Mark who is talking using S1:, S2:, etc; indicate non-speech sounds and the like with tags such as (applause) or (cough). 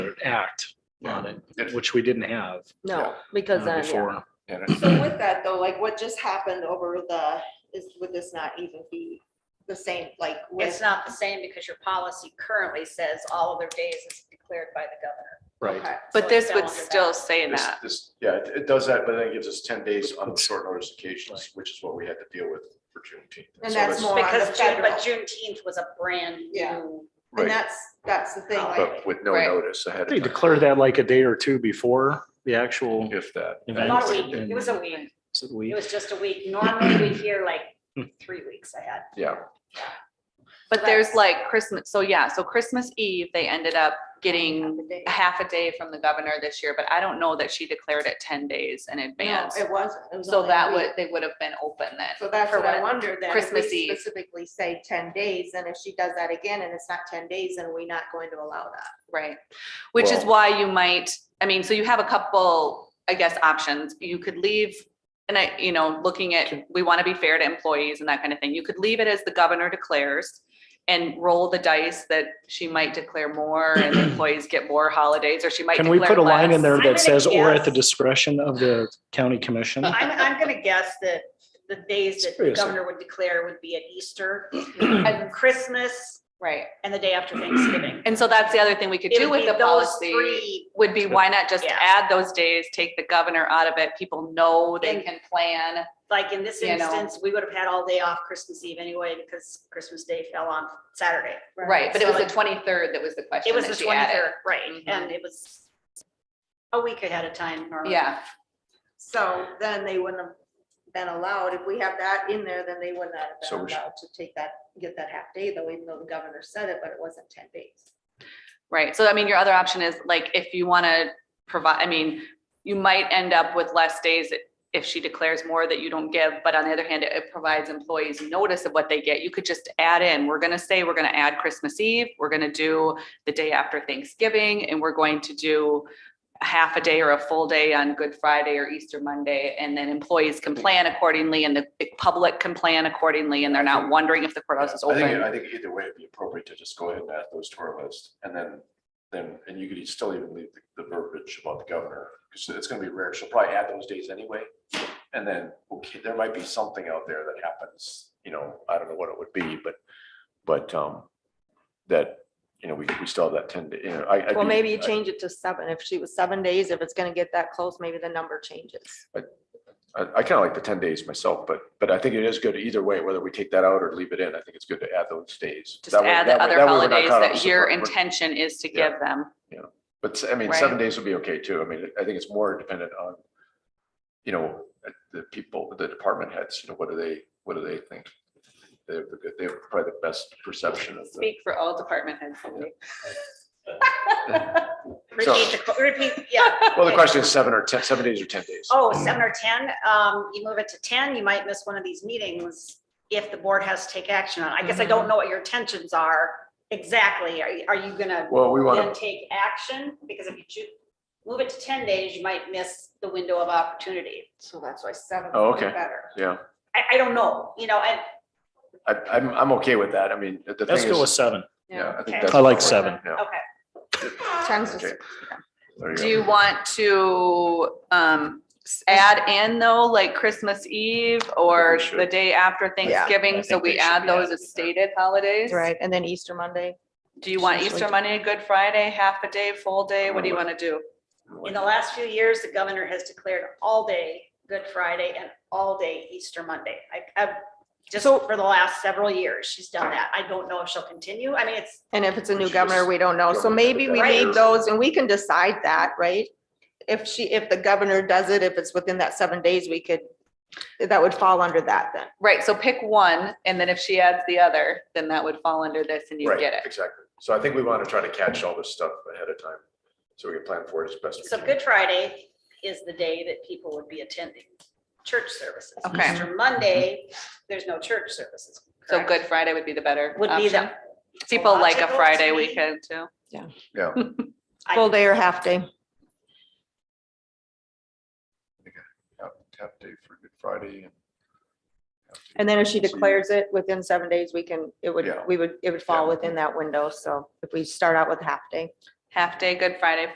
S1: act on it, which we didn't have.
S2: No,
S1: uh,
S2: because then, yeah.
S1: Before,
S3: And
S4: (clears throat) So with that though, like what just happened over the, is, would this not even be the same, like
S5: It's
S4: with?
S5: not the same because your policy currently says all other days is declared by the governor.
S1: right.
S4: Okay.
S5: So
S2: But
S5: it
S2: this
S5: fell
S2: would
S5: under that.
S2: still say
S3: This,
S2: that.
S3: this, yeah, it it does that, but then it gives us ten days on the short notice occasions, which is what we had to deal with for Juneteenth.
S4: And
S3: so
S4: that's more on the
S5: Because June,
S4: federal.
S5: but Juneteenth was a brand
S4: Yeah.
S5: new,
S4: And
S3: Right,
S4: that's, that's the thing, like,
S3: but with no
S5: Right.
S3: notice ahead of
S1: They
S3: time.
S1: declare that like a day or two before the actual.
S3: If that.
S5: not a
S1: event.
S5: week, it was a week,
S1: So
S5: it
S1: we-
S5: was just a week. Normally we hear like three weeks ahead.
S3: Yeah,
S2: But there's like Christmas, so yeah, so Christmas Eve, they ended up getting
S4: the day-
S2: a half a day from the governor this year, but I don't know that she declared it ten days in
S4: no,
S2: advance.
S4: it wasn't. It was
S2: So
S4: only a
S2: that
S4: week.
S2: would, they would have been open
S4: So
S2: then.
S4: that's
S2: for
S4: what I
S2: when-
S4: wondered then. if we
S2: Christmas Eve.
S4: Specifically say ten days, and if she does that again and it's not ten days, then we're not going to allow that.
S2: Right, which is
S3: Well-
S2: why you might, I mean, so you have a couple, I guess, options. You could leave. And I, you know, looking at, we want to be fair to employees and that kind of thing. You could leave it as the governor declares. And roll the dice that she might declare
S1: (clears throat)
S2: more and employees get more holidays, or she might.
S1: Can we
S2: declare
S1: put a line in
S2: less.
S1: there
S5: I'm gonna
S1: that says, or at the
S5: guess-
S1: discretion of the county commission?
S5: I'm, I'm gonna guess that the days that the
S1: Seriously.
S5: governor would declare would be at Easter, and Christmas,
S2: Right,
S5: and the day after Thanksgiving.
S2: and so that's the other thing we could
S5: It
S2: do
S5: would
S2: with
S5: be
S2: the
S5: those
S2: policy.
S5: three
S2: Would be why not just
S5: Yeah.
S2: add those days, take the governor out of it, people know they
S5: And-
S2: can plan.
S5: like in this
S2: You know.
S5: instance, we would have had all day off Christmas Eve anyway, because Christmas Day fell on Saturday.
S2: Right, but it
S5: So
S2: was the
S5: like-
S2: twenty-third that was the question
S5: It was the
S2: that she added. Mm-hmm.
S5: twenty-third, right, and it was a week ahead of time normally.
S2: Yeah,
S4: So then they wouldn't have been allowed, if we have that in there, then they would not have
S3: So
S4: been
S3: we should-
S4: allowed to take that, get that half day though, even though the governor said it, but it wasn't ten days.
S2: right. So I mean, your other option is like, if you want to provide, I mean, you might end up with less days that- if she declares more that you don't give, but on the other hand, it- it provides employees notice of what they get. You could just add in, we're going to say, we're going to add Christmas Eve, we're going to do the day after Thanksgiving, and we're going to do a half a day or a full day on Good Friday or Easter Monday, and then employees can plan accordingly and the public can plan accordingly, and they're not wondering if the courthouse is
S3: I think,
S2: open.
S3: I think either way it'd be appropriate to just go ahead and add those to our list and then, then, and you could e-, still even leave the- the verbiage about the governor. Cause it's gonna be rare. She'll probably add those days anyway. And then, okay, there might be something out there that happens, you know, I don't know what it would be, but, but, um, that, you know, we, we still have that ten day, you know, I. I
S4: Well,
S3: do-
S4: maybe you
S3: I-
S4: change it to seven. If she was seven days, if it's gonna get that close, maybe the number changes.
S3: I, I kind of like the ten days myself, but, but I think it is good either way, whether we take that out or leave it in. I think it's good to add those days.
S2: Just
S3: That way-
S2: add
S3: that
S2: the
S3: way-
S2: other
S3: that way we're not
S2: holidays
S3: caught up
S2: that your
S3: separ- we're-
S2: intention is to
S3: Yeah.
S2: give them.
S3: But s- I mean,
S2: Right.
S3: seven days would be okay too. I mean, I think it's more dependent on, you know, the people, the department heads, you know, what do they, what do they think? They have, the good- they have probably the best perception of the.
S2: Speak for all department heads. Cindy.
S5: Repeat, the qu- repeat, yeah.
S3: Well, the
S5: okay.
S3: question is seven or ten, seven days or ten days.
S5: Oh, seven or ten, um, you move it to ten, you might miss one of these meetings if the board has to take action on. it. I guess I
S3: Mm-hmm.
S5: don't know what your intentions are exactly. Are, you- are you gonna
S3: Well, we
S5: then
S3: want to,
S5: take action? Because if you choo- move it to ten days, you might miss the window of opportunity.
S4: So that's why seven
S3: Oh,
S4: would be
S3: okay.
S4: better.
S3: yeah,
S5: I, I don't know, you know, and
S3: I, I'm, I'm okay with that. I mean, the thing
S1: Let's
S3: is.
S1: go with seven.
S3: Yeah, I
S5: Okay.
S3: think that's.
S1: I like
S3: appropriate.
S1: seven.
S3: Yeah.
S5: Okay.
S4: Times is-
S3: Okay. There
S2: Do
S3: you
S2: you
S3: go.
S2: want to um s- add in though, like Christmas Eve or
S3: should.
S2: the day after Thanksgiving? So
S1: think
S2: we
S1: they should
S2: add
S1: be
S2: those
S1: added
S2: as stated holidays?
S4: Right, and then Easter Monday.
S2: Do you want
S4: Usually.
S2: Easter Monday, Good Friday, half a day, full day? What do you want to do?
S5: In the last few years, the governor has declared all day Good Friday and all day Easter Monday. I, I've, just for the last several years, she's done that. I don't know if she'll continue. I mean, it's,
S4: And if it's a new
S3: Which
S4: governor,
S3: is-
S4: we don't know.
S3: don't
S4: So
S3: know
S4: maybe
S3: that
S4: we
S5: that
S4: need
S3: is.
S4: those and we can decide that, right? If she, if the governor does it, if it's within that seven days, we could, that would fall under that then.
S2: Right, so pick one and then if she adds the other, then that would fall under this and you
S3: Right,
S2: get it.
S3: Exactly. So I think we want to try to catch all this stuff ahead of time. So we can plan for it as best we
S5: so
S3: can.
S5: Good Friday is the day that people would be attending church services.
S2: Okay.
S5: Easter Monday, there's no church services.
S2: So
S5: correct?
S2: Good Friday would be the better
S5: Would be the.
S2: option. People like a
S5: logical to
S2: Friday
S5: me.
S2: weekend too.
S3: Yeah.
S5: I-
S4: Full day or half day.
S3: Tap tap day for Good Friday. and half day
S4: And then if she
S3: for Christmas Eve.
S4: declares it within seven days, we can, it would,
S3: Yeah.
S4: we would, it would fall
S3: Yeah.
S4: within that window. So if we start out with half day.
S2: Half day, Good Friday,